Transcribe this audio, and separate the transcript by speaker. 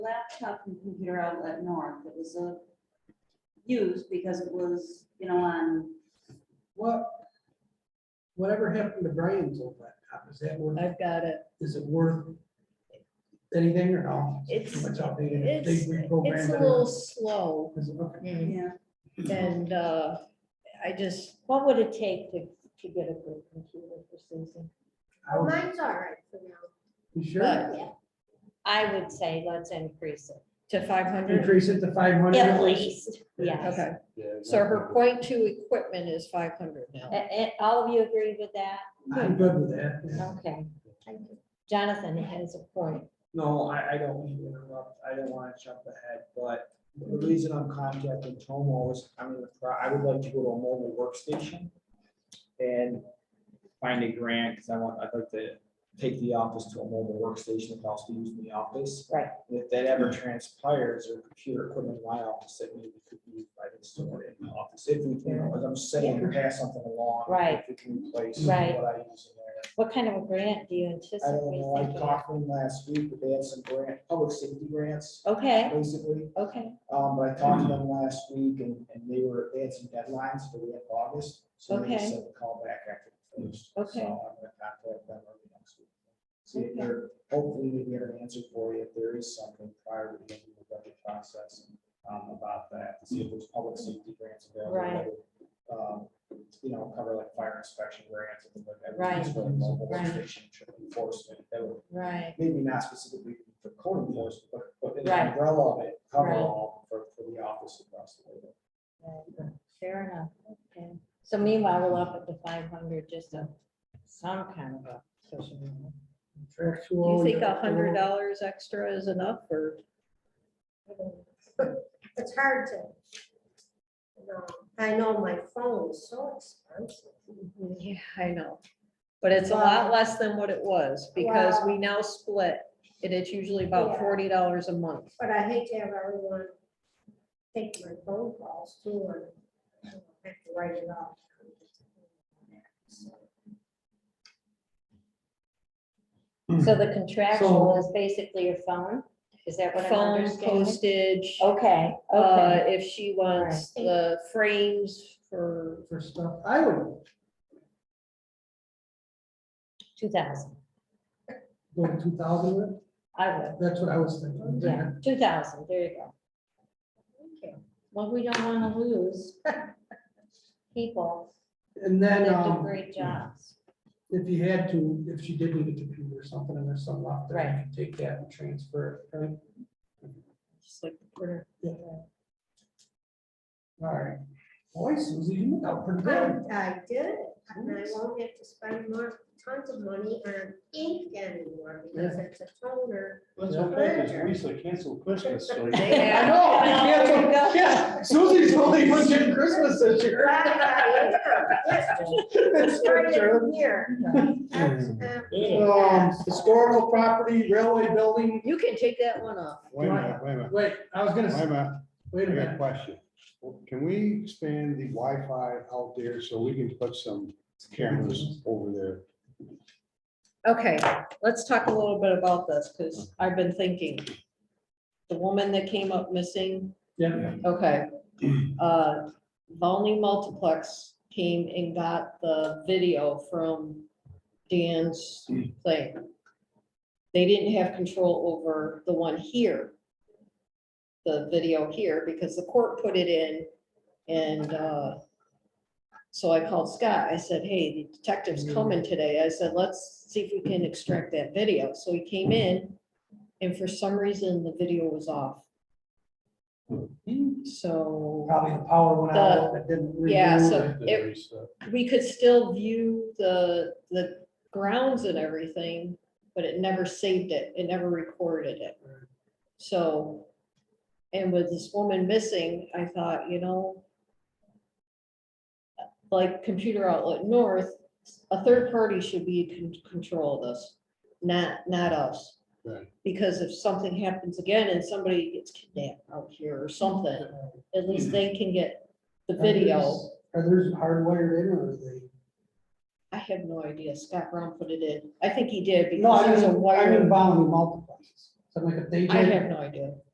Speaker 1: laptop and computer outlet north that was uh, used because it was, you know, on,
Speaker 2: What, whatever happened to Brian's old laptop? Is that worth,
Speaker 3: I've got it.
Speaker 2: is it worth anything or no?
Speaker 3: It's-
Speaker 2: Too much outdated.
Speaker 3: It's,
Speaker 2: They reprogrammed
Speaker 3: it's a
Speaker 2: it.
Speaker 3: little slow
Speaker 2: Is it- okay.
Speaker 1: yeah,
Speaker 3: and uh, I just, what would it take to, to get a good computer for Susan?
Speaker 2: I would-
Speaker 4: Mine's all right for
Speaker 2: You
Speaker 3: But
Speaker 2: sure?
Speaker 4: Yeah.
Speaker 3: I would say let's increase it to five hundred.
Speaker 2: Increase it to five hundred?
Speaker 3: At least, yes. Okay, so her point two equipment is five hundred now.
Speaker 5: Eh, eh, all of you agree with that?
Speaker 2: I'm good with that. yeah.
Speaker 5: Okay.
Speaker 4: now.
Speaker 5: Jonathan has a point.
Speaker 6: No, I, I don't want to interrupt. I didn't want to jump ahead, but the reason I'm contacting Tomo is, I mean, I would like to go to a mobile workstation and find a grant, because I want, I'd like to take the office to a mobile workstation and also use in the office.
Speaker 5: Right.
Speaker 6: And If that ever transpires, or computer equipment in my office, that maybe could be used by the store in the office, if we can, as I'm saying, pass something along.
Speaker 5: Right.
Speaker 6: If we can replace what
Speaker 5: Right.
Speaker 6: I use in there.
Speaker 5: What kind of a grant do you
Speaker 6: I don't know, I
Speaker 5: anticipate? thinking?
Speaker 6: talked to them last week, but they had some grant, public safety grants,
Speaker 5: Okay,
Speaker 6: basically.
Speaker 5: okay,
Speaker 6: Um, but I talked to
Speaker 5: Hmm.
Speaker 6: them last week and, and they were, they had some deadlines for the end of August. So they
Speaker 5: Okay.
Speaker 6: said to call back after. the first.
Speaker 5: Okay.
Speaker 6: So I'm gonna contact them early next week. See if they're, hopefully we get an answer for you if there is something prior to the end of the budget process, um, about that, to see if there's public safety grants available. that
Speaker 5: Right.
Speaker 6: would, Um, you know, cover like fire inspection grants and things like that.
Speaker 5: Right.
Speaker 6: Just for mobile
Speaker 5: Right.
Speaker 6: station Enforcement, that would
Speaker 5: right,
Speaker 6: maybe not specifically for code enforcement, but, but in
Speaker 5: Right.
Speaker 6: the umbrella of it, cover
Speaker 5: Right.
Speaker 6: all for, for the office across the way.
Speaker 5: right, fair enough, okay. So meanwhile, we'll up it to five hundred, just a, some kind of a social. media.
Speaker 3: Do
Speaker 2: Contractual.
Speaker 3: you think a
Speaker 2: you're-
Speaker 3: hundred dollars extra is enough or?
Speaker 4: It's hard to. you know, I know my phone is so expensive.
Speaker 3: Yeah, I know. But it's a lot less than what it was because we now split and it's usually about
Speaker 4: Yeah.
Speaker 3: forty dollars a month.
Speaker 4: But I hate to have everyone take my phone calls too and I have to write it off.
Speaker 2: Hmm.
Speaker 5: So
Speaker 6: Hmm.
Speaker 5: the contractual
Speaker 2: So-
Speaker 5: is basically your phone? Is that what I'm
Speaker 3: Phone
Speaker 5: understanding?
Speaker 3: postage,
Speaker 5: Okay,
Speaker 3: uh,
Speaker 5: okay,
Speaker 3: if she wants
Speaker 4: Right.
Speaker 3: the frames for,
Speaker 2: For stuff, I would
Speaker 5: two thousand,
Speaker 2: go to two thousand with,
Speaker 5: I would,
Speaker 2: that's what I was thinking.
Speaker 5: yeah, two thousand, there you go.
Speaker 4: Okay.
Speaker 5: Well, we don't wanna lose people
Speaker 2: And
Speaker 5: that
Speaker 2: then,
Speaker 5: do
Speaker 2: um,
Speaker 5: great jobs.
Speaker 2: if you had to, if she did need a computer or something and there's some left, there, you
Speaker 5: Right.
Speaker 2: could take that and transfer it, right?
Speaker 3: just like the printer.
Speaker 2: All right. Boy, Susie, you look out pretty good.
Speaker 4: I I did, it, and I won't have to spend more, tons of money on ink anymore because it's a toner.
Speaker 7: Let's hope that this Lisa canceled Christmas, so you
Speaker 3: They
Speaker 2: I
Speaker 3: have-
Speaker 2: know,
Speaker 5: Yeah.
Speaker 2: yeah, so- yeah, Susie's only one getting Christmas this year.
Speaker 4: uh,
Speaker 2: That's for sure.
Speaker 4: Here. That's, uh,
Speaker 2: Um, Historical property, railway building,
Speaker 3: You can take that one off.
Speaker 7: Wait a minute, wait a minute,
Speaker 2: wait, I was gonna,
Speaker 7: wait a
Speaker 2: s-
Speaker 7: minute, I
Speaker 2: wait a
Speaker 7: got a
Speaker 2: minute,
Speaker 7: question. Can we expand the Wi-Fi out there so we can put some cameras over there?
Speaker 3: Okay, let's talk a little bit about this because I've been thinking. The woman that came up missing
Speaker 2: yeah,
Speaker 3: Okay. Uh, Volney Multiplex came and got the video from Dan's thing. They didn't have control over the one here. The video here, because the court put it in and, uh, so I called Scott. I said, hey, the detective's coming today. I said, let's see if we can extract that video. So he came in and for some reason, the video was off. So.
Speaker 2: probably the power went out, it didn't.
Speaker 3: Yeah,
Speaker 2: renew
Speaker 3: so
Speaker 2: it.
Speaker 3: it, we could still view the, the grounds and everything, but it never saved it, it never recorded it. So, and with this woman missing, I thought, you know, like computer outlet north, a third party should be in con- control of this, not, not us.
Speaker 7: Right.
Speaker 3: Because if something happens again and somebody gets kidnapped out here or something, at least they can get the video.
Speaker 2: Are those hardwired in or are they?
Speaker 3: I have no idea. Scott Brown put it in. I think he did
Speaker 2: No,
Speaker 3: because
Speaker 2: I
Speaker 3: there's a
Speaker 2: mean, I mean,
Speaker 3: wire.
Speaker 2: bound multiplexes. So like if they
Speaker 3: I
Speaker 2: did,
Speaker 3: have no idea.